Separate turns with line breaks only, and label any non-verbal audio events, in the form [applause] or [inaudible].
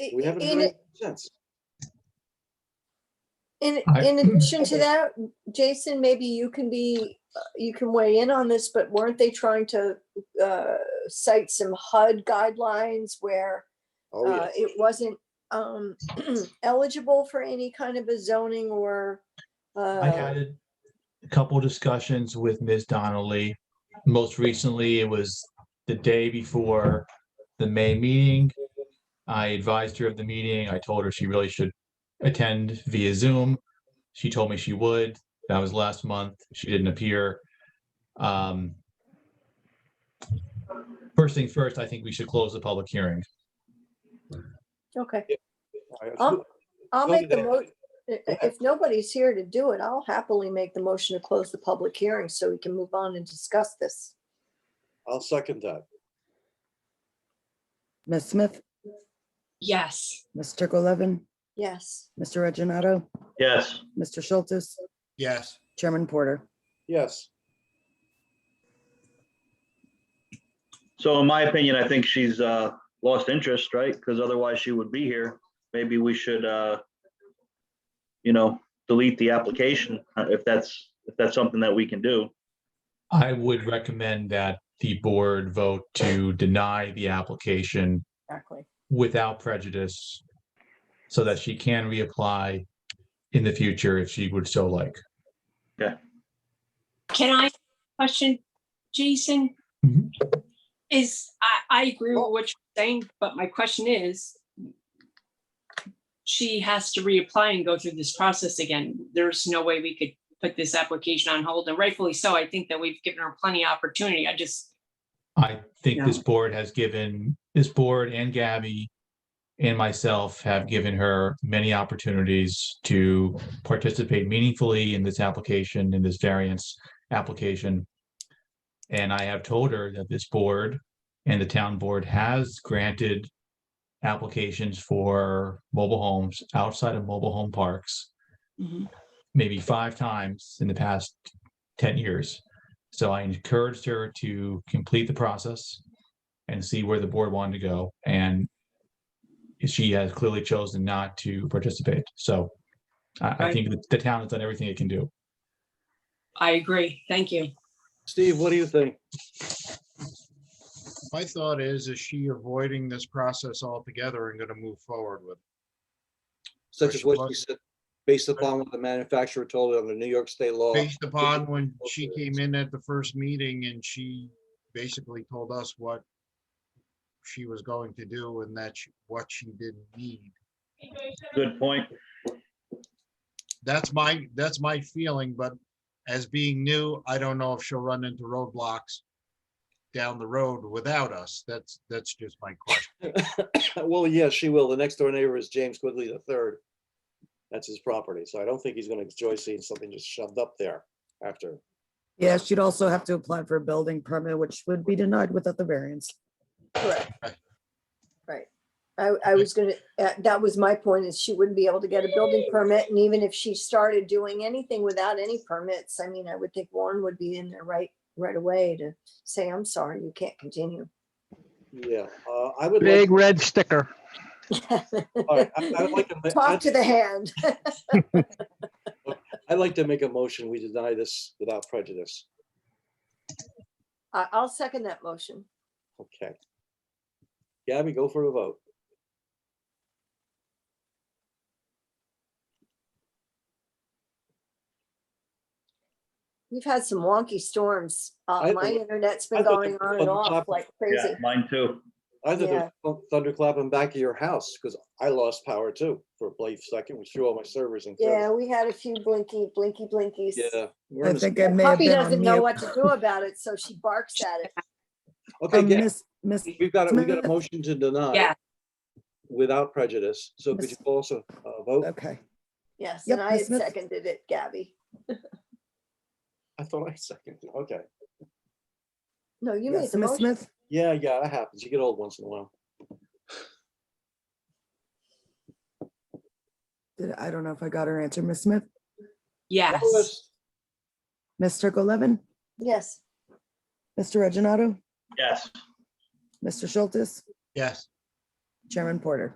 i-
We haven't
Uh, in-
heard it since.
In,
I-
in addition to that, Jason, maybe you can be, uh, you can weigh in on this, but weren't they trying to uh, cite some HUD guidelines where
Oh,
uh,
yeah.
it wasn't um, [clears throat] eligible for any kind of a zoning or
I
uh,
had a- a couple discussions with Ms. Donnelly. Most recently, it was the day before the May meeting. I advised her of the meeting. I told her she really should attend via Zoom. She told me she would. That was last month. She didn't appear. Um, First things first, I think we should close the public hearing.
okay.
I- I-
I'll, I'll
I'll do
make the
that.
mo, i- i- if nobody's here to do it, I'll happily make the motion to close the public hearing so we can move on and discuss this.
I'll second that.
Ms. Smith,
Yes.
Ms. Levin,
Yes.
Mr. Reggino,
Yes.
Mr. Schultz,
yes,
Chairman Porter.
Yes,
So in my opinion, I think she's uh, lost interest, right? Because otherwise she would be here. Maybe we should, uh, you know, delete the application uh, if that's, if that's something that we can do.
I would recommend that the board vote to deny the application
Exactly.
without prejudice so that she can reapply in the future if she would so like.
Can I question, Jason?
Mhm.
Is, I, I agree with what you're saying, but my question is, she has to reapply and go through this process again. There's no way we could put this application on hold, and rightfully so. I think that we've given her plenty of opportunity. I just,
I think this board has given, this board and Gabby and myself have given her many opportunities to participate meaningfully in this application, in this variance application. And I have told her that this board and the town board has granted applications for mobile homes outside of mobile home parks. maybe five times in the past ten years. So I encouraged her to complete the process and see where the board wanted to go. And she has clearly chosen not to participate. So I, I
Right.
think that the town has done everything it can do.
I agree. Thank you.
Steve, what do you think?
my thought is, is she avoiding this process altogether and gonna move forward with? it?
Such as what she
Question.
said, based upon what the manufacturer told her under New York state law. [coughs]
Based upon when she came in at the first meeting and she basically told us what she was going to do and that she- what she didn't need.
Good point.
That's my, that's my feeling, but as being new, I don't know if she'll run into roadblocks down the road without us. That's, that's just my question.
Well, yes, she will. The next door neighbor is James Quigley the third. That's his property, so I don't think he's gonna enjoy seeing something just shoved up there after.
Yeah, she'd also have to apply for a building permit, which would be denied without the variance.
Correct. Right. I, I was gonna, uh, that was my point, is she wouldn't be able to get a building permit, and even if she started doing anything without any permits, I mean, I would think Warren would be in there right, right away to say, I'm sorry, you can't continue.
Yeah, uh, I would like,
Big red sticker.
all right, I- I would
[laughs]
like to ma-
Talk to the hand.
I'd like to make a motion. We deny this without prejudice.
I, I'll second that motion.
Okay. Gabby, go for a vote.
We've had some wonky storms. Uh,
I
my
thought-
internet's
I
been
thought
going
it
on
was
and
on top
off
of-
like
Yeah,
crazy.
mine too.
I thought there was a thunderclap in back of your house because I lost power too for a brief second, which threw all my servers in.
Yeah, we had a few blinky, blinky, blinkies.
Yeah. we're in
I
the-
think I may have
Puppy
been on
doesn't know
mute.
what to do about it, so she barks at it.
Okay,
Um,
Gabby,
Miss, Miss,
we've got, a- we've got a
Smith.
motion to deny
Yeah.
without prejudice. So could you
Miss-
also uh, vote?
okay,
Yes,
Yep,
and I
Miss
had
Smith.
seconded it, Gabby.
I thought I [laughs] seconded. Okay.
No, you made
yes,
the
Ms.
motion.
Smith,
Yeah, yeah, that happens. You get old once in a while.
Did- I don't know if I got her answer, Ms. Smith,
Yes.
Lois,
Ms. Levin,
Yes,
Mr. Reggino,
Yes.
Mr. Schultz,
Yes,
Chairman Porter.